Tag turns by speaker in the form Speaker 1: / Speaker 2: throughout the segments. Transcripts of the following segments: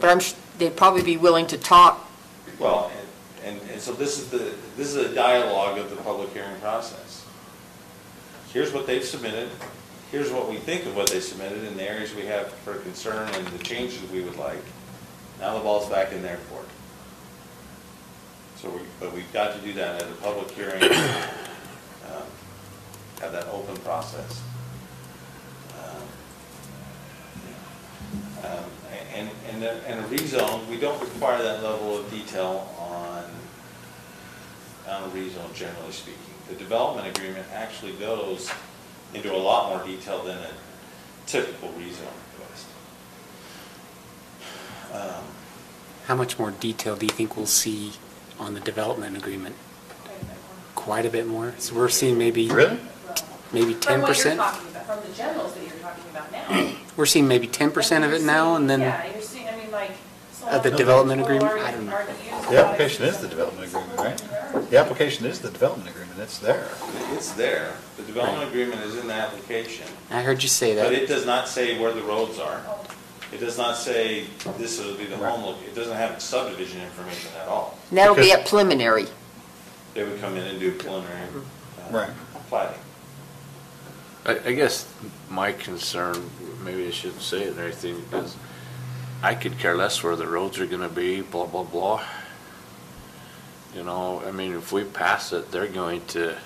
Speaker 1: but I'm, sh- they'd probably be willing to talk.
Speaker 2: Well, and, and- and so this is the, this is a dialogue of the public hearing process. Here's what they've submitted, here's what we think of what they submitted, and the areas we have for concern and the changes we would like. Now the ball's back in their court. So we, but we've got to do that at a public hearing, um, have that open process. Um, And, and, a- and a rezone, we don't require that level of detail on, on a rezone generally speaking. The development agreement actually goes into a lot more detail than a typical rezone request. Um,
Speaker 3: How much more detail do you think we'll see on the development agreement? Quite a bit more. So we're seeing maybe, maybe
Speaker 4: From
Speaker 3: ten
Speaker 4: what you're
Speaker 3: percent?
Speaker 4: talking about, from the generals that you're talking about now.
Speaker 3: We're seeing maybe ten percent of it now and then,
Speaker 4: Yeah, you're seeing, I mean, like. some
Speaker 3: Of the
Speaker 4: people
Speaker 3: development
Speaker 4: already-
Speaker 3: agreement? I don't know.
Speaker 4: already use a lot
Speaker 5: The
Speaker 4: of
Speaker 5: application is
Speaker 4: these
Speaker 5: the
Speaker 4: other
Speaker 5: development
Speaker 4: things.
Speaker 5: agreement, right? The application is the development agreement, it's there.
Speaker 2: It's there, the development
Speaker 3: Right.
Speaker 2: agreement is in the application,
Speaker 3: I heard you say
Speaker 2: but it
Speaker 3: that.
Speaker 2: does not say where the roads are. It does not say this will be the home, loc- it doesn't have subdivision information at all.
Speaker 1: And that'll be
Speaker 5: Because-
Speaker 1: at preliminary.
Speaker 2: They would come in and do preliminary uh,
Speaker 5: Right.
Speaker 2: plating.
Speaker 6: I, I guess my concern, maybe I shouldn't say it or anything, is I could care less where the roads are gonna be, blah, blah, blah. You know, I mean, if we pass it, they're going to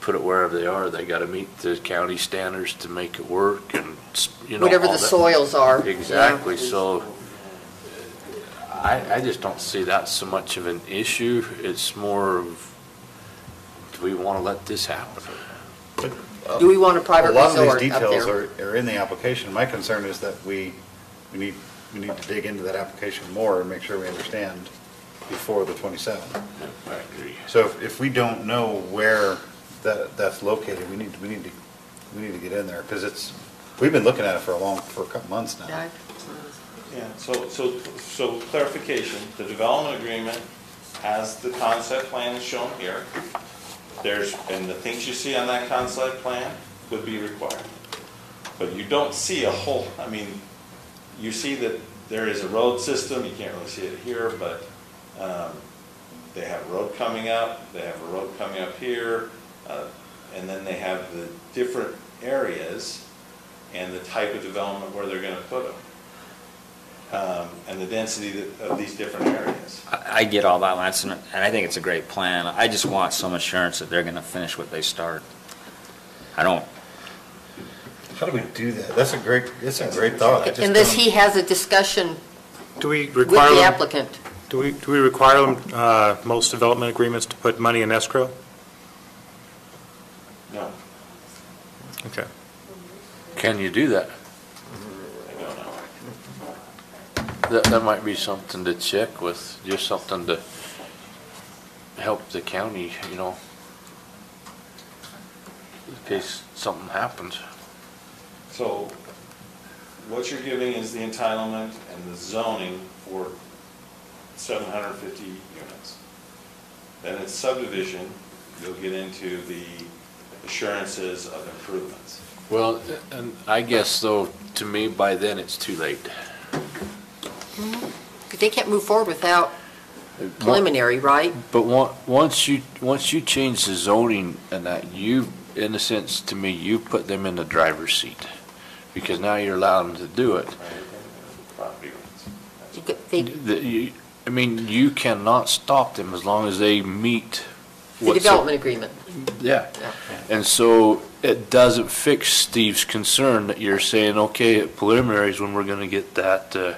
Speaker 6: put it wherever they are. They gotta meet the county standards to make it work and, s- you know.
Speaker 1: Whatever
Speaker 6: all
Speaker 1: the
Speaker 6: that.
Speaker 1: soils are, yeah.
Speaker 6: Exactly, so I, I just don't see that so much of an issue. It's more of, do we wanna let this happen?
Speaker 1: Do we want a private
Speaker 5: A lot of
Speaker 1: resort
Speaker 5: these
Speaker 1: up
Speaker 5: details
Speaker 1: there?
Speaker 5: are, are in the application. My concern is that we, we need, we need to dig into that application more and make sure we understand before the 27th.
Speaker 6: I agree.
Speaker 5: So if, if we don't know where that, that's located, we need, we need to, we need to get in there, because it's, we've been looking at it for a long, for a couple months now.
Speaker 1: Yeah.
Speaker 2: Yeah, so, so, so clarification, the development agreement has the concept plan shown here. There's, and the things you see on that concept plan would be required. But you don't see a whole, I mean, you see that there is a road system, you can't really see it here, but, um, they have a road coming up, they have a road coming up here, uh, and then they have the different areas and the type of development where they're gonna put them um, and the density that- of these different areas.
Speaker 7: I I get all that, Lance, and and I think it's a great plan. I just want some assurance that they're going to finish what they start. I don't,
Speaker 5: How do we do that? That's a great, that's a great thought. I just
Speaker 1: Unless
Speaker 5: don't-
Speaker 1: he has a discussion
Speaker 8: Do we
Speaker 1: with
Speaker 8: require,
Speaker 1: the
Speaker 8: them-
Speaker 1: applicant.
Speaker 8: do we, do we require them, uh, most development agreements to put money in escrow?
Speaker 2: No,
Speaker 8: Okay.
Speaker 6: Can you do that?
Speaker 2: I don't know.
Speaker 6: That, that might be something to check with, just something to help the county, you know, in case something happens.
Speaker 2: So what you're giving is the entitlement and the zoning for 750 units. Then it's subdivision, you'll get into the assurances of improvements.
Speaker 6: Well, and I guess though, to me, by then, it's too late.
Speaker 1: Because they can't move forward without preliminary, right?
Speaker 6: But on- once you, once you change the zoning and that, you, in a sense, to me, you put them in the driver's seat. Because now you're allowing them to do
Speaker 2: right?
Speaker 6: it.
Speaker 2: And Property rights.
Speaker 1: You could- They
Speaker 6: The- you- I mean, you cannot stop them as long as they meet.
Speaker 1: The
Speaker 6: what's-
Speaker 1: development agreement.
Speaker 6: Yeah.
Speaker 1: Yeah.
Speaker 6: And so it doesn't fix Steve's concern that you're saying, okay, at preliminaries when we're gonna get that, uh,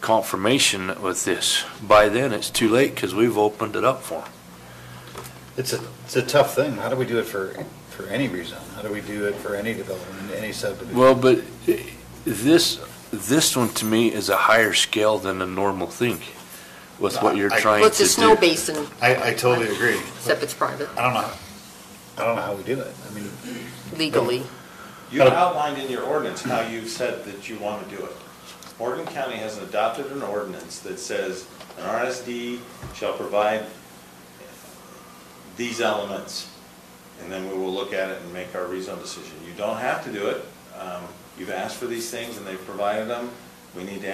Speaker 6: confirmation with this. By then, it's too late because we've opened it up for 'em.
Speaker 5: It's a, it's a tough thing. How do we do it for, for any reason? How do we do it for any development, any subdivision?
Speaker 6: Well, but i- this, this one to me is a higher scale than a normal thing with what you're
Speaker 5: I-
Speaker 6: trying
Speaker 1: Well,
Speaker 6: to do.
Speaker 1: it's a snow basin,
Speaker 5: I, I totally agree.
Speaker 1: except it's private
Speaker 5: I don't know, how- I don't know how we do it. I mean,
Speaker 1: legally.
Speaker 2: You outlined in your ordinance how you've said that you want to do it. Morgan County has adopted an ordinance that says an RSD shall provide these elements, and then we will look at it and make our rezone decision. You don't have to do it. Um, You've asked for these things, and they've provided them. We need to